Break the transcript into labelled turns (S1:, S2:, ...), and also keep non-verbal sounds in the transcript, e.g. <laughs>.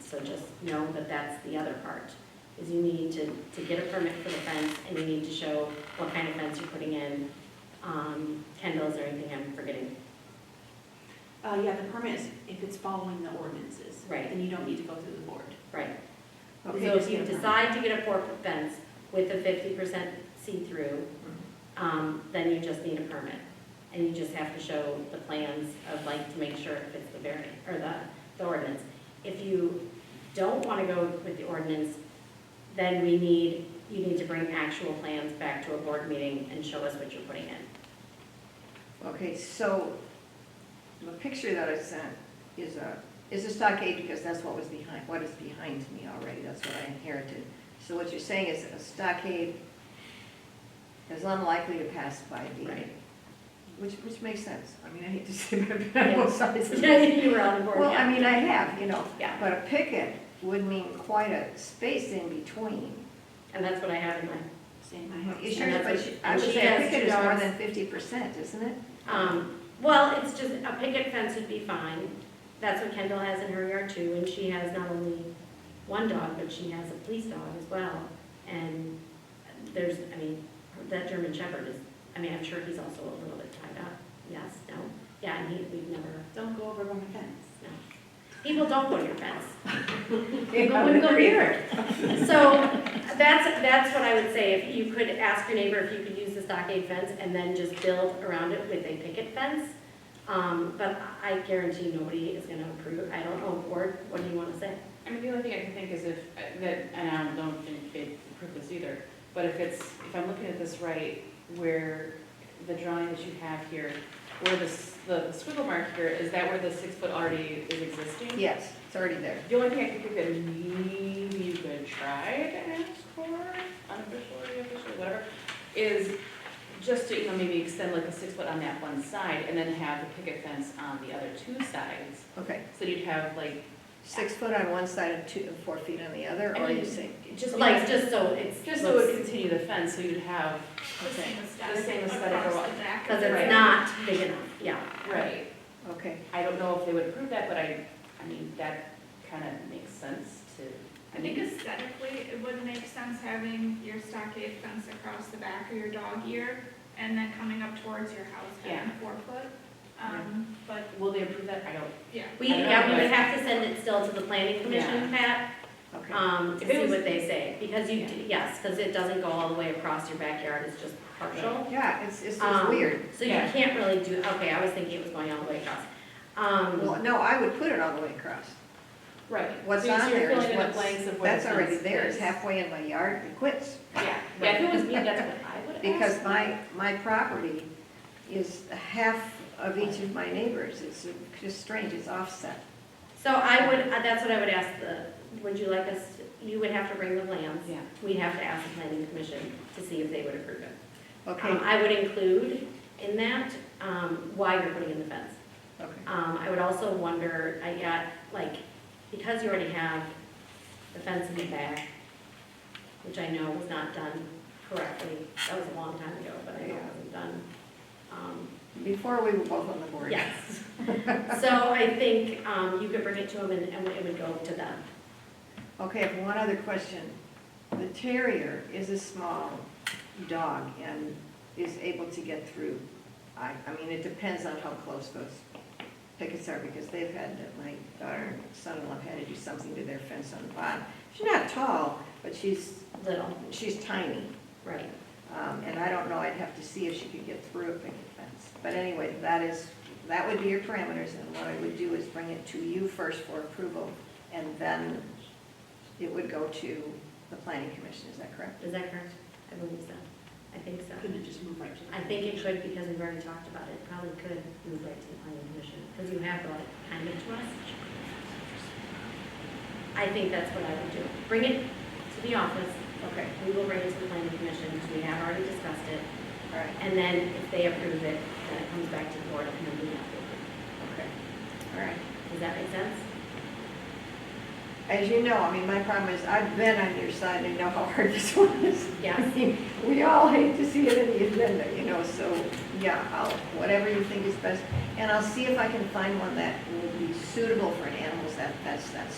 S1: so just know that that's the other part, is you need to, to get a permit for the fence, and you need to show what kind of fence you're putting in, um, Kendall's or anything I'm forgetting.
S2: Uh, yeah, the permit is, if it's following the ordinances.
S1: Right.
S2: Then you don't need to go through the board.
S1: Right. So
S2: Okay, just
S1: if you
S2: get a permit.
S1: decide to get a four-foot fence with a fifty percent see-through,
S3: Mm-hmm.
S1: um, then you just need a permit. And you just have to show the plans of like, to make sure it fits the variant, or the, the ordinance. If you don't want to go with the ordinance, then we need, you need to bring actual plans back to a board meeting and show us what you're putting in.
S3: Okay, so the picture that I sent is a, is a stockade because that's what was behind, what is behind me already, that's what I inherited. So what you're saying is a stockade is unlikely to pass by the,
S1: Right.
S3: which, which makes sense. I mean, I hate to <laughs> say that, but I'm both sides of
S1: Yeah,
S3: it.
S1: <laughs> you were on the board,
S3: Well, I
S1: yeah.
S3: mean, I have, you know,
S1: Yeah.
S3: but a picket would mean quite a space in between.
S1: And that's what I have in mind.
S2: Same.
S3: You
S1: And
S3: sure,
S1: that's
S3: but
S1: what-
S3: you- I
S1: and
S3: would
S1: she
S3: say a
S1: has
S3: picket
S1: two
S3: is more
S1: dogs.
S3: than fifty percent, isn't it?
S1: Um, well, it's just, a picket fence would be fine. That's what Kendall has in her yard too, and she has not only one dog, but she has a police dog as well. And there's, I mean, that German Shepherd is, I mean, I'm sure he's also a little bit tied up. Yes, no, yeah, and he, we've never,
S2: Don't go over on the fence.
S1: no. People don't go to your fence. They
S3: <laughs>
S1: go and go to yours. So that's, that's what I would say, if you could ask your neighbor if you could use the stockade fence and then just build around it with a picket fence. Um, but I guarantee nobody is gonna approve, I don't know, board, what do you wanna say?
S4: I mean, the only thing I can think is if, that, and I don't think they approve this either, but if it's, if I'm looking at this right, where the drawing that you have here, where this, the squiggle mark here, is that where the six foot already is existing?
S3: Yes, it's already there.
S4: The only thing I can think that maybe you could try to ask for, unofficially, officially, whatever, is just to, you know, maybe extend like a six foot on that one side and then have the picket fence on the other two sides.
S3: Okay,
S4: So you'd have like,
S3: six foot on one side and two, and four feet on the other,
S4: I
S3: or you
S4: mean-
S3: say,
S4: just like
S1: Like, just so it's.
S4: Just so it would continue the fence, so you'd have,
S3: okay,
S4: The same aesthetic
S5: across
S4: or
S5: the back.
S1: Cause it's
S4: Right.
S1: not big enough, yeah.
S4: right,
S3: okay.
S4: I don't know if they would approve that, but I, I mean, that kind of makes sense to.
S5: I think aesthetically, it would make sense having your stockade fence across the back of your dog ear and then coming up towards your house, having
S4: Yeah.
S5: four foot. Um, but,
S4: Will they approve that? I don't,
S5: yeah.
S1: We, yeah, we would have to send it still to the planning commission, Pat,
S3: Okay.
S1: um, to
S4: If it
S1: see
S4: was-
S1: what they say. Because you,
S4: Yeah.
S1: d- yes, cause it doesn't go all the way across your backyard, it's just partial.
S3: Yeah, it's, it's just
S1: Um,
S3: weird.
S1: So you
S4: Yeah.
S1: can't really do, okay, I was thinking it was going all the way across. Um,
S3: Well, no, I would put it all the way across.
S4: right.
S3: What's
S4: So you're
S3: on there
S4: filling
S3: is
S4: in the
S3: what's,
S4: blanks of where the
S3: that's already
S4: fence
S3: there,
S4: is.
S3: it's halfway in my yard, it quits.
S4: Yeah, yeah, if it was me, that's what I would ask.
S3: <laughs> Because my, my property is half of each of my neighbors, it's just strange, it's offset.
S1: so I would, uh, that's what I would ask the, would you like us, you would have to bring the plans.
S4: Yeah.
S1: We'd have to ask the planning commission to see if they would approve it.
S3: Okay,
S1: Um, I would include in that, um, why you're putting in the fence.
S3: okay.
S1: Um, I would also wonder, I got, like, because you already have the fence in the back, which I know was not done correctly, that was a long time ago, but I know it wasn't done. Um,
S3: Before we were both on the board.
S1: Yes. So I think um, you could bring it to them and and it would go to them.
S3: Okay, I have one other question. The terrier is a small dog and is able to get through. I, I mean, it depends on how close those pickets are, because they've had, my daughter and son-in-law had to do something to their fence on the bottom. She's not tall, but she's,
S1: Little,
S3: she's tiny.
S1: right.
S3: Um, and I don't know, I'd have to see if she could get through a picket fence. But anyway, that is, that would be your parameters, and what I would do is bring it to you first for approval, and then it would go to the planning commission, is that correct?
S1: Is that correct? I believe so. I think so.
S2: Couldn't it just move right to the?
S1: I think it could because we've already talked about it. Probably could move right to the planning commission because you have brought it kind of to us. I think that's what I would do. Bring it to the office.
S3: Okay,
S1: We will bring it to the planning commission because we have already discussed it.
S3: all right,
S1: And then if they approve it, then it comes back to the board and then we have to approve
S3: okay, all right.
S1: it. Does that make sense?
S3: As you know, I mean, my problem is, I've been on your side, and I know how hard <laughs> this one is.
S1: Yes.
S3: I mean, We all hate to see it in the agenda, you know, so, yeah, I'll, whatever you think is best. And I'll see if I can find one that would be suitable for an animal that, that's, that's